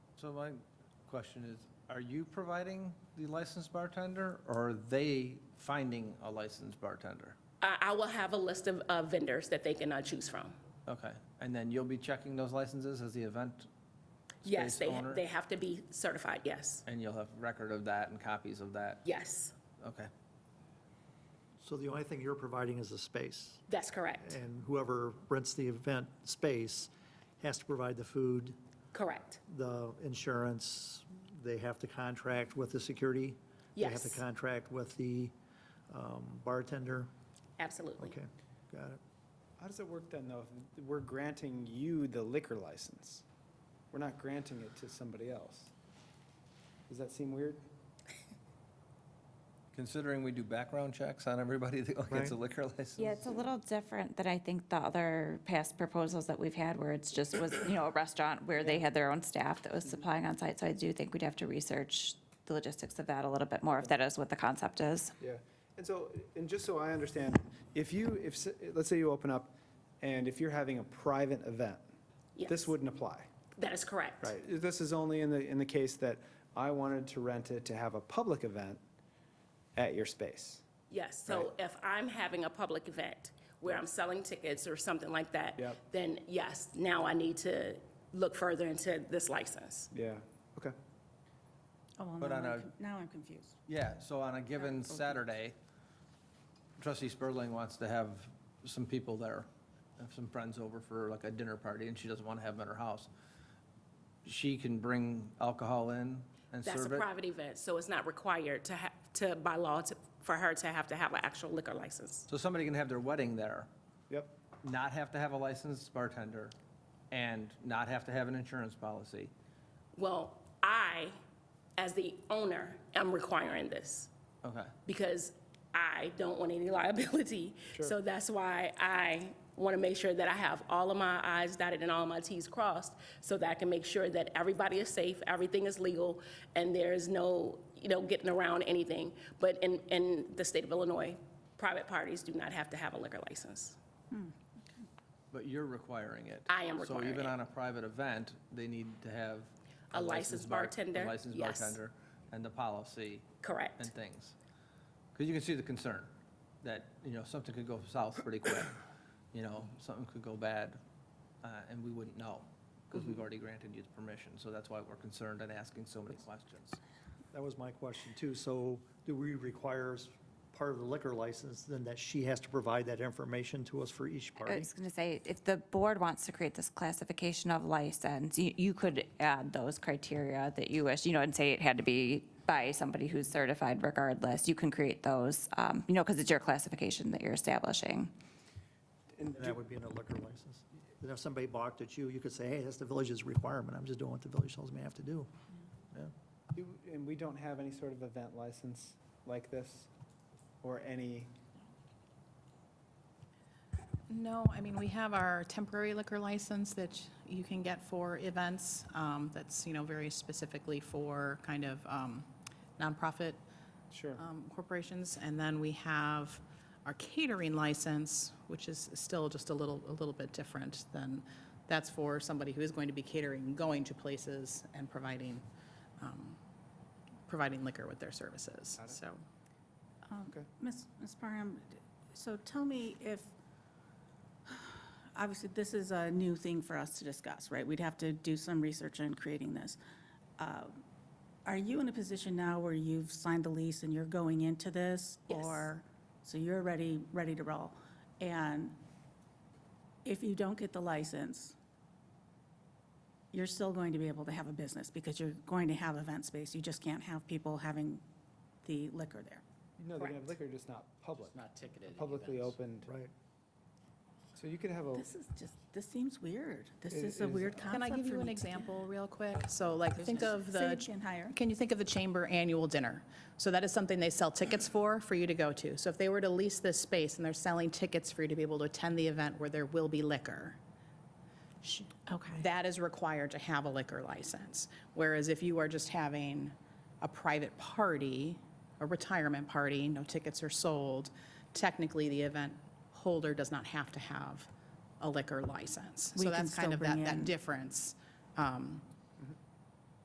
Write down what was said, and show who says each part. Speaker 1: So my question is, are you providing the licensed bartender, or are they finding a licensed bartender?
Speaker 2: I I will have a list of uh, vendors that they can uh, choose from.
Speaker 1: Okay, and then you'll be checking those licenses as the event
Speaker 2: Yes,
Speaker 1: space
Speaker 2: they,
Speaker 1: owner?
Speaker 2: they have to be certified, yes,
Speaker 1: And you'll have record of that and copies of that?
Speaker 2: yes,
Speaker 1: Okay,
Speaker 3: So the only thing you're providing is a space,
Speaker 2: that's correct,
Speaker 3: and whoever rents the event space has to provide the food,
Speaker 2: correct,
Speaker 3: the insurance, they have to contract with the security? They have
Speaker 2: Yes.
Speaker 3: to contract with the um, bartender?
Speaker 2: absolutely.
Speaker 3: Okay, got it.
Speaker 4: How does it work then, though? if We're granting you the liquor license. We're not granting it to somebody else. Does that seem weird?
Speaker 1: considering we do background checks on everybody that gets a
Speaker 3: Right.
Speaker 1: liquor license?
Speaker 5: Yeah, it's a little different than I think the other past proposals that we've had where it's just was, you know, a restaurant where they had their own staff that was supplying on site. So I do think we'd have to research the logistics of that a little bit more, if that is what the concept is.
Speaker 4: Yeah. And so, and just so I understand, if you, if, s- let's say you open up, and if you're having a private event,
Speaker 2: Yes.
Speaker 4: this wouldn't apply,
Speaker 2: That is correct.
Speaker 4: right? This is only in the, in the case that I wanted to rent it to have a public event at your space.
Speaker 2: Yes, so if I'm having a public event where I'm selling tickets or something like that,
Speaker 4: Yep.
Speaker 2: then yes, now I need to look further into this license.
Speaker 4: Yeah, okay.
Speaker 6: Oh, well,
Speaker 1: But
Speaker 6: now
Speaker 1: on
Speaker 6: I'm
Speaker 1: a-
Speaker 6: con- now I'm confused.
Speaker 1: Yeah, so on a given Saturday, trustee Spurling wants to have some people there, have some friends over for like a dinner party, and she doesn't want to have them at her house. She can bring alcohol in and
Speaker 2: That's a
Speaker 1: serve it?
Speaker 2: private event, so it's not required to have, to, by law, to- for her to have to have an actual liquor license.
Speaker 1: So somebody can have their wedding there,
Speaker 4: Yep,
Speaker 1: not have to have a licensed bartender, and not have to have an insurance policy.
Speaker 2: Well, I, as the owner, am requiring this
Speaker 1: Okay,
Speaker 2: because I don't want any liability. So that's why I want to make sure that I have all of my i's dotted and all my t's crossed so that I can make sure that everybody is safe, everything is legal, and there is no, you know, getting around anything. But in, in the state of Illinois, private parties do not have to have a liquor license.
Speaker 1: but you're requiring it.
Speaker 2: I am
Speaker 1: So
Speaker 2: requiring
Speaker 1: even
Speaker 2: it.
Speaker 1: on a private event, they need to have.
Speaker 2: A licensed
Speaker 1: bar-
Speaker 2: bartender,
Speaker 1: A licensed
Speaker 2: yes.
Speaker 1: bartender, and the policy.
Speaker 2: Correct.
Speaker 1: and things. Because you can see the concern that, you know, something could go south pretty quick. You know, something could go bad, uh, and we wouldn't know because we've already granted you the permission. So that's why we're concerned and asking so many questions.
Speaker 3: That was my question too. So do we require as part of the liquor license then that she has to provide that information to us for each
Speaker 5: I
Speaker 3: party?
Speaker 5: was going to say, if the board wants to create this classification of license, you, you could add those criteria that you wish, you know, and say it had to be by somebody who's certified regardless. You can create those, um, you know, because it's your classification that you're establishing.
Speaker 3: And that would be in a liquor license. Then if somebody balked at you, you could say, hey, that's the village's requirement. I'm just doing what the village tells me I have to do.
Speaker 4: Do- And we don't have any sort of event license like this, or any,
Speaker 7: No, I mean, we have our temporary liquor license that you can get for events, um, that's, you know, very specifically for kind of um, nonprofit
Speaker 4: sure.
Speaker 7: um, corporations. And then we have our catering license, which is still just a little, a little bit different than, that's for somebody who is going to be catering, going to places and providing, um, providing liquor with their services, so.
Speaker 6: Ms. Ms. Parham, d- so tell me if, obviously, this is a new thing for us to discuss, right? We'd have to do some research on creating this. Uh, Are you in a position now where you've signed the lease and you're going into this?
Speaker 2: Yes.
Speaker 6: Or, so you're ready, ready to roll? And if you don't get the license, you're still going to be able to have a business because you're going to have event space. You just can't have people having the liquor there.
Speaker 4: No, they can have liquor, just not public. Not ticketed. Publicly opened.
Speaker 3: Right.
Speaker 4: So you could have a,
Speaker 6: This is just, this seems weird. This
Speaker 4: It
Speaker 6: is a
Speaker 4: is-
Speaker 6: weird concept
Speaker 7: Can I give
Speaker 6: for
Speaker 7: you an
Speaker 6: me to
Speaker 7: example real quick? So like, think of
Speaker 6: Say
Speaker 7: the,
Speaker 6: again, higher.
Speaker 7: can you think of the chamber annual dinner? So that is something they sell tickets for, for you to go to. So if they were to lease this space and they're selling tickets for you to be able to attend the event where there will be liquor,
Speaker 6: Sh- Okay.
Speaker 7: that is required to have a liquor license. Whereas if you are just having a private party, a retirement party, no tickets are sold, technically the event holder does not have to have a liquor license.
Speaker 6: We can
Speaker 7: So that's kind
Speaker 6: still
Speaker 7: of that,
Speaker 6: bring in-
Speaker 7: that difference um,